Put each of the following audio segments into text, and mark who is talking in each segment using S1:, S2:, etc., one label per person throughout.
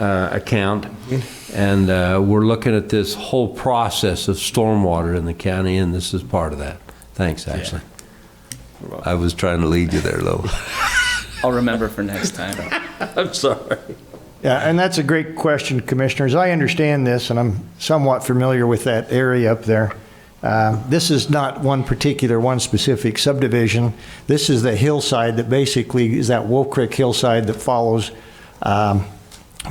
S1: uh, account. And uh, we're looking at this whole process of stormwater in the county, and this is part of that. Thanks, Ashley. I was trying to lead you there, though.
S2: I'll remember for next time.
S1: I'm sorry.
S3: Yeah, and that's a great question, Commissioners. I understand this, and I'm somewhat familiar with that area up there. Uh, This is not one particular, one specific subdivision. This is the hillside that basically is that Wolf Creek hillside that follows um,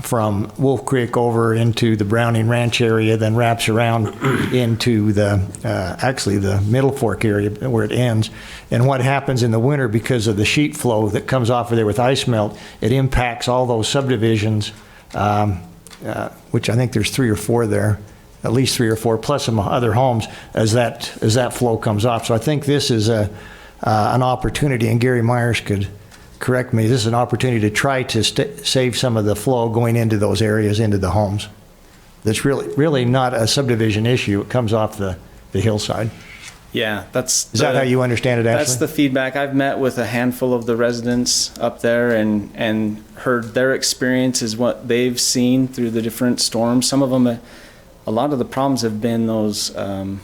S3: from Wolf Creek over into the Browning Ranch area, then wraps around into the, uh, actually, the Middle Fork area where it ends. And what happens in the winter, because of the sheet flow that comes off of there with ice melt, it impacts all those subdivisions, um, uh, which I think there's three or four there, at least three or four, plus some other homes, as that, as that flow comes off. So I think this is a, uh, an opportunity, and Gary Myers could, correct me, this is an opportunity to try to st- save some of the flow going into those areas, into the homes. That's really, really not a subdivision issue. It comes off the, the hillside.
S2: Yeah, that's.
S3: Is that
S2: the-
S3: how you understand it,
S2: That's
S3: Ashley?
S2: the feedback. I've met with a handful of the residents up there and, and heard their experience is what they've seen through the different storms. Some of them, uh, a lot of the problems have been those um,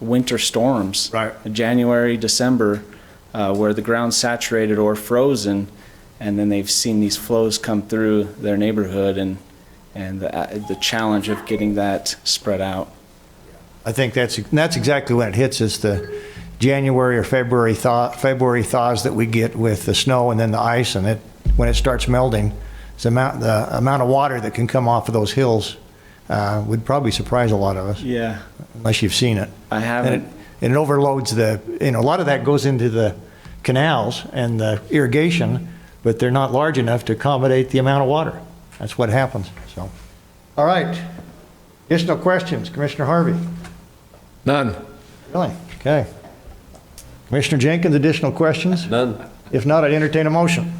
S2: winter storms.
S3: Right.
S2: January, December, uh, where the ground's saturated or frozen, and then they've seen these flows come through their neighborhood and, and the, uh, the challenge of getting that spread out.
S3: I think that's, that's exactly when it hits us, the January or February thaw, February thaws that we get with the snow and then the ice and it, when it starts melting, the amount, the amount of water that can come off of those hills, uh, would probably surprise a lot of us,
S2: Yeah.
S3: unless you've seen it.
S2: I
S3: And
S2: haven't.
S3: it, and it overloads the, you know, a lot of that goes into the canals and the irrigation, but they're not large enough to accommodate the amount of water. That's what happens, so. All right. Additional questions, Commissioner Harvey?
S4: None.
S3: Really? Okay. Commissioner Jenkins, additional questions?
S1: None.
S3: If not, I'd entertain a motion.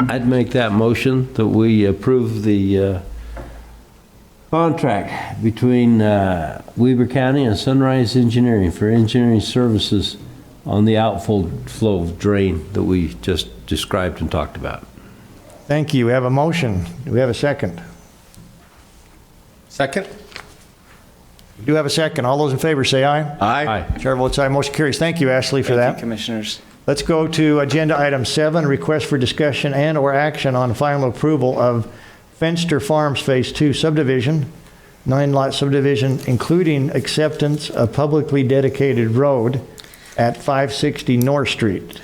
S1: I'd make that motion that we approve the uh, contract between uh, Weaver County and Sunrise Engineering for engineering services on the outflow drain that we just described and talked about.
S3: Thank you. We have a motion. Do we have a second?
S4: Second?
S3: We do have a second. All those in favor say aye.
S4: Aye.
S3: Chair votes aye. Motion carries. Thank you, Ashley, for that.
S2: Thank you, commissioners.
S3: Let's go to agenda item seven, request for discussion and/or action on final approval of Fenster Farms Phase Two subdivision, nine-lot subdivision, including acceptance of publicly dedicated road at 560 North Street.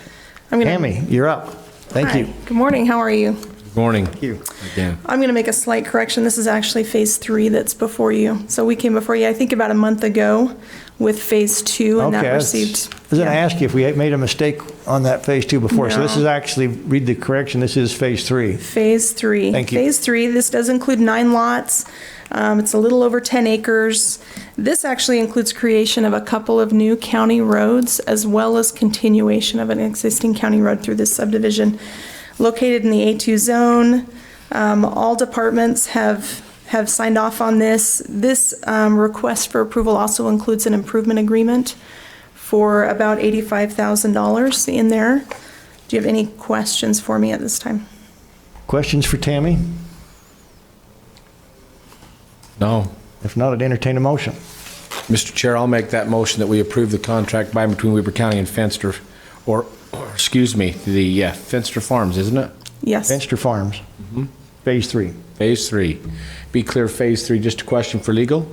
S5: I'm gonna-
S3: Tammy, you're up. Thank
S5: Hi.
S3: you.
S5: Good morning, how are you?
S4: Good Morning. Thank
S3: you.
S4: Again.
S5: I'm going to make a slight correction. This is actually Phase 3 that's before you. So we came before you, I think, about a month ago with Phase 2, and
S3: Okay,
S5: that
S3: I was-
S5: received.
S3: I was going to
S5: yeah.
S3: ask you if we had made a mistake on that Phase Two before. So this
S5: No.
S3: is actually, read the correction, this is Phase Three.
S5: Phase three.
S3: Thank you.
S5: Phase three, this does include nine lots. Um, it's a little over 10 acres. This actually includes creation of a couple of new county roads as well as continuation of an existing county road through this subdivision. Located in the A2 zone, um, all departments have, have signed off on this. This, um, request for approval also includes an improvement agreement for about $85,000 in there. Do you have any questions for me at this time?
S3: Questions for Tammy?
S4: No.
S3: If not, I'd entertain a motion.
S4: Mr. Chair, I'll make that motion that we approve the contract by and between Weber County and Fenster, or, or, excuse me, the uh, Fenster Farms, isn't it?
S5: Yes.
S3: Fenster Farms, Phase Three.
S4: Phase three. Be clear, phase three, just a question for legal.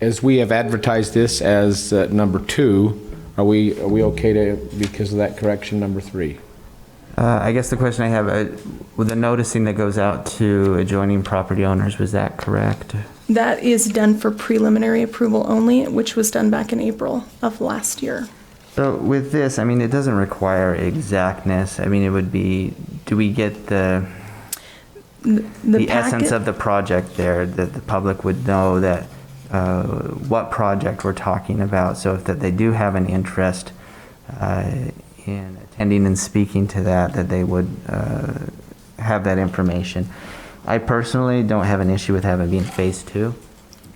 S4: As we have advertised this as uh, number two, are we, are we okay to, because of that correction, number three?
S6: Uh, I guess the question I have, uh, with the noticing that goes out to adjoining property owners, was that correct?
S5: That is done for preliminary approval only, which was done back in April of last year.
S6: So with this, I mean, it doesn't require exactness. I mean, it would be, do we get the, the essence
S5: packet-
S6: of the project there, that the public would know that, uh, what project we're talking about? So if that they do have an interest uh, in attending and speaking to that, that they would uh, have that information. I personally don't have an issue with having it being phase two.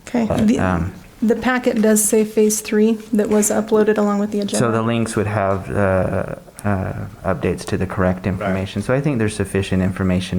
S5: Okay. The,
S6: um,
S5: the packet does say phase three that was uploaded along with the agenda.
S6: So the links would have uh, uh, updates to the correct information. So I think there's sufficient information